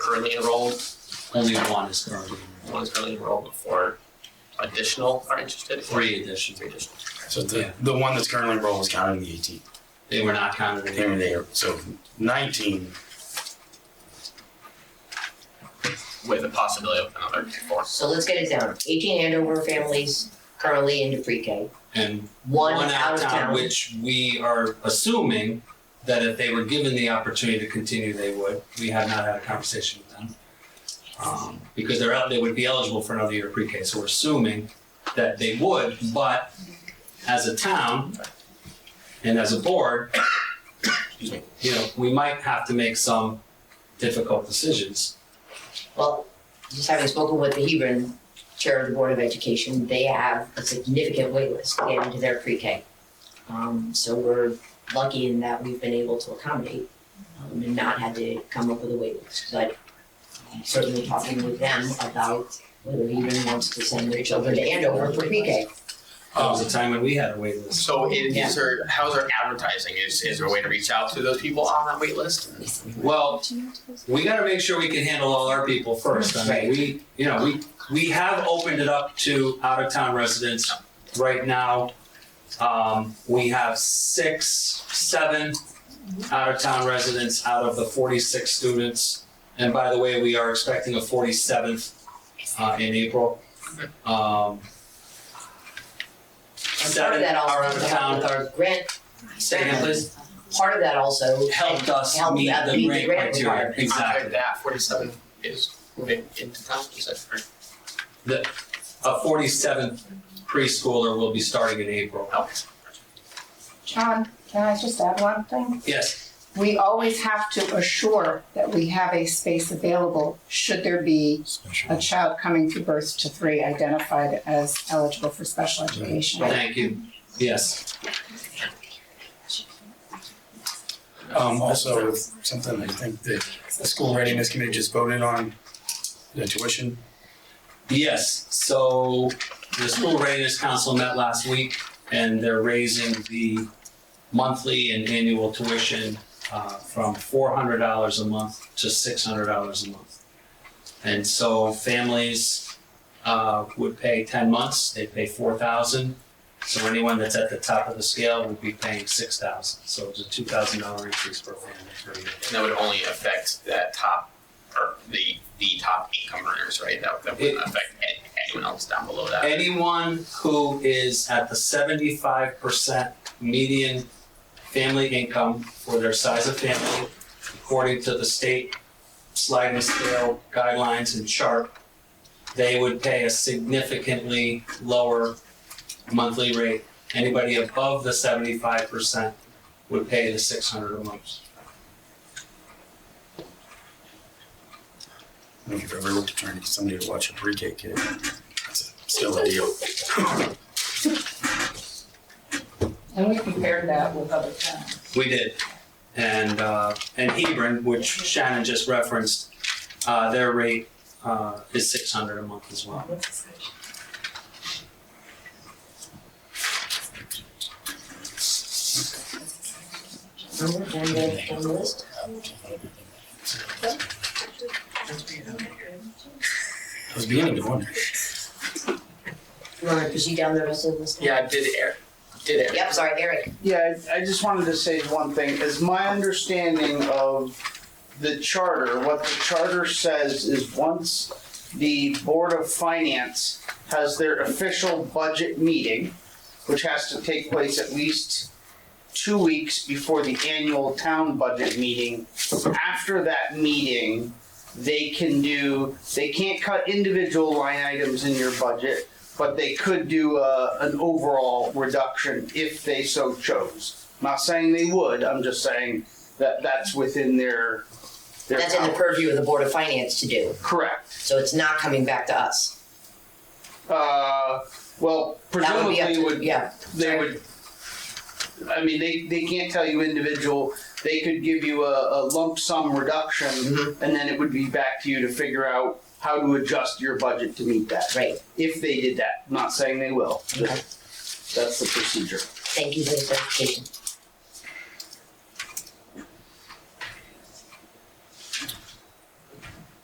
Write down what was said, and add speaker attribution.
Speaker 1: currently enrolled.
Speaker 2: Only one is currently enrolled.
Speaker 1: One is currently enrolled before additional are interested. or
Speaker 2: Three additions.
Speaker 1: Three additional.
Speaker 3: So
Speaker 2: Yeah.
Speaker 3: the, the one that's currently enrolled is counted in the eighteen.
Speaker 2: They were not counted in
Speaker 3: They were there, so nineteen,
Speaker 1: With the possibility of another four.
Speaker 4: So let's get it down. Eighteen Andover families currently into pre-K.
Speaker 2: And
Speaker 4: One out of
Speaker 2: opt-out,
Speaker 4: town.
Speaker 2: Which we are assuming that if they were given the opportunity to continue, they would. We have not had a conversation with them. Um, because they're out, they would be eligible for another year of pre-K, so we're assuming that they would, but as a town and as a board, excuse me, you know, we might have to make some difficult decisions.
Speaker 4: Well, just having spoken with the Hebron Chair of the Board of Education, they have a significant waitlist to get into their pre-K. Um, so we're lucky in that we've been able to accommodate um, and not had to come up with a waitlist. But I'm certainly talking with them about whether Hebron wants to send their children to Andover for pre-K.
Speaker 2: That was a time when we had a wait list.
Speaker 1: Um, So is,
Speaker 4: Yeah.
Speaker 1: is there, how's our advertising? Is, is there a way to reach out to those people on that wait list?
Speaker 2: Well, we gotta make sure we can handle all our people first. I mean,
Speaker 4: Right.
Speaker 2: we, you know, we, we have opened it up to out-of-town residents right now. Um, we have six, seven out-of-town residents out of the forty-six students. And by the way, we are expecting a forty-seventh, uh, in April. Um,
Speaker 4: And part
Speaker 2: seven
Speaker 4: of that
Speaker 2: are out
Speaker 4: also
Speaker 2: of town,
Speaker 4: helped with our grant
Speaker 2: Say again, please.
Speaker 4: part of that also
Speaker 2: helped us
Speaker 4: Helped
Speaker 2: meet
Speaker 4: us
Speaker 2: the
Speaker 4: meet the
Speaker 2: grant
Speaker 4: grant
Speaker 2: criteria,
Speaker 4: requirement.
Speaker 2: exactly.
Speaker 1: After that forty-seven is moving into town, is that correct?
Speaker 2: a 47th preschooler will be starting in April.
Speaker 1: Okay.
Speaker 5: John, can I just add one thing?
Speaker 2: Yes,
Speaker 5: We always have to assure that we have a space available should there be a child coming through birth to three identified as eligible for special education.
Speaker 2: thank you. Yes,
Speaker 3: um, also something I think that the school readiness committee just voted on, the tuition.
Speaker 2: yes. So the school readiness council met last week and they're raising the monthly and annual tuition uh, from $400 a month to $600 a month. And so families uh, would pay 10 months, they pay 4,000. So anyone that's at the top of the scale would be paying 6,000. So it's a $2,000 increase per family per year.
Speaker 1: And that would only affect that top, or the, the top income earners, right? That, that wouldn't affect any- anyone else down below that.
Speaker 2: anyone who is at the seventy-five percent median family income for their size of family, according to the state sliding scale guidelines and chart, they would pay a significantly lower monthly rate. Anybody above the seventy-five percent would pay the six hundred a month.
Speaker 3: I don't know If you've ever looked at trying to get somebody to watch a pre-K kid, that's a- still a deal.
Speaker 5: And we compared that with other towns.
Speaker 2: We did. And, uh, and Hebron, which Shannon just referenced, uh, their rate, uh, is six hundred a month as well.
Speaker 4: number on the, on the list.
Speaker 3: I was beginning to wonder.
Speaker 4: You wanna proceed down the rest of the list?
Speaker 1: Yeah, did air, did air.
Speaker 4: Yep, sorry, Eric.
Speaker 6: Yeah, I I just wanted to say one thing, is my understanding of the charter, what the charter says is once the Board of Finance has their official budget meeting, which has to take place at least two weeks before the annual town budget meeting, after that meeting, they can do, they can't cut individual line items in your budget, but they could do uh, an overall reduction if they so chose. Not saying they would, I'm just saying that that's within their, their
Speaker 4: That's in the
Speaker 6: power.
Speaker 4: purview of the Board of Finance to do,
Speaker 6: Correct.
Speaker 4: so it's not coming back to us.
Speaker 6: Uh, well,
Speaker 4: That would be up
Speaker 6: presumably
Speaker 4: to-
Speaker 6: would,
Speaker 4: Yeah,
Speaker 6: they would, I mean, they, they can't tell you individual, they could give you a, a lump sum reduction
Speaker 4: Mhm.
Speaker 6: and then it would be back to you to figure out how to adjust your budget to meet that.
Speaker 4: right,
Speaker 6: If they did that, not saying they will,
Speaker 4: Okay.
Speaker 6: just, that's the procedure.
Speaker 4: thank you for the clarification.